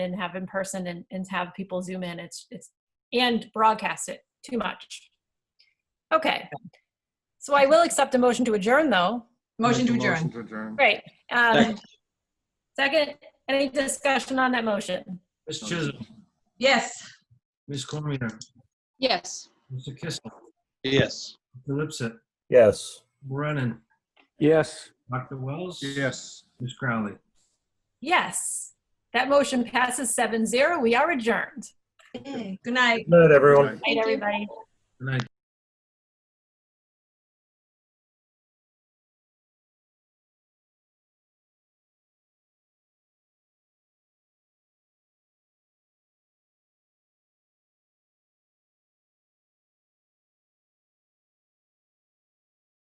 and have in person and, and have people zoom in. It's it's and broadcast it too much. Okay. So I will accept a motion to adjourn though. Motion to Make a adjourn. Motion to adjourn. Great. Um, Second. second, any discussion on that motion? Ms. Chisholm, Yes. Ms. Cormier, Yes. Mr. Kissel, Yes. Mr. Lipset, Yes. Brennan, Yes. Dr. Wells. Yes. Ms. Crowley. Yes. That motion passes seven zero. We are adjourned. Good night. Good night, everyone. Night, everybody. Good night.